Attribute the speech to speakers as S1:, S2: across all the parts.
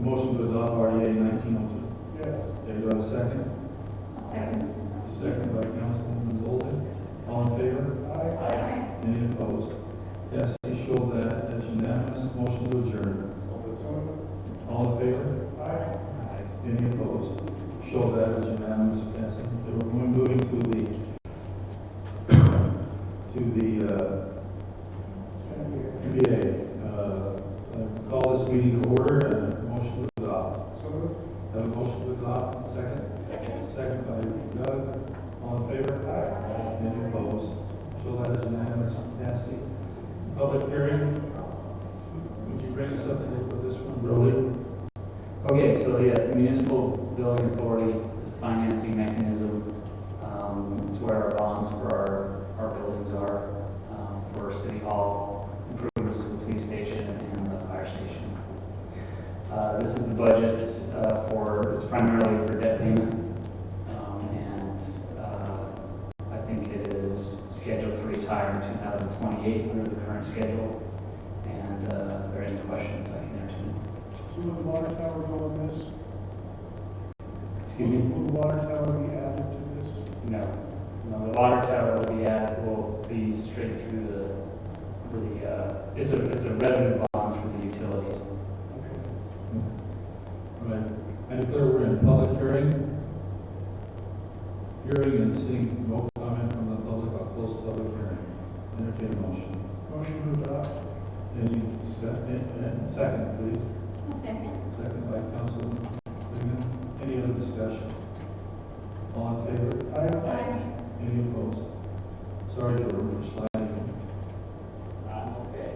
S1: Motion to adopt RDA nineteen oh
S2: Yes.
S1: two. Do you have a second?
S3: Second.
S1: Second by Councilwoman Zoldan. All in favor?
S2: Aye.
S3: Aye.
S1: Any opposed? Yes, you show that as unanimous. Motion to adjourn.
S2: So
S1: All in favor?
S2: moved. Aye.
S1: Aye. Any opposed? Show that as unanimous. Passing. We're moving to the, to the, uh,
S2: Thank you.
S1: NBA. Uh, I Call this meeting to order and a motion to adopt.
S2: So moved.
S1: Have a motion to adopt, second? Second. Second by Doug, all in favor? Aye. Any opposed? Show that as unanimous, Nancy. Public hearing, would you bring us up to date with this one, Brody?
S4: Okay, so yes, the municipal building authority is a financing mechanism. Um, It's where our bonds for our, our buildings are, um, for city hall improvements to the police station and the fire station. Uh, This is the budget uh, for, it's primarily for debt payment. Um, And uh, I think it is scheduled to retire in 2028 under the current schedule. And uh, if there are any questions, I can answer them.
S2: So would the water tower go on this?
S4: Excuse me?
S2: Will the water tower be added to this?
S4: No, no, the water tower will be at, will be straight through the, through the, uh, it's a, it's a revenue bond for the utilities.
S2: Okay.
S1: Right, I declare we're in public hearing. Hearing and seeing no comment from the public, I'll close the public hearing. Entertain a motion.
S2: Motion to adopt.
S1: Any discussion, and second, please.
S3: Second.
S1: Second by Councilman Bingham. Any other discussion? All in favor?
S2: Aye.
S1: Any opposed? Sorry, Jordan, for sliding.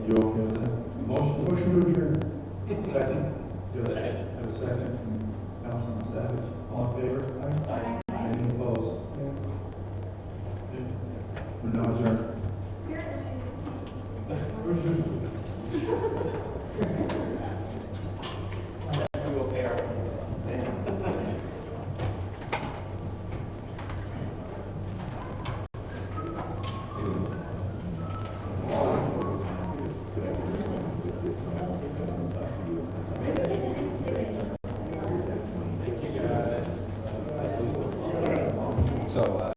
S1: You okay with that? Motion?
S2: Motion to adjourn.
S1: Second? Second. Have a second from Councilman Savage. All in favor?
S3: Aye.
S1: Any opposed?
S2: Yeah.
S1: We're now adjourned.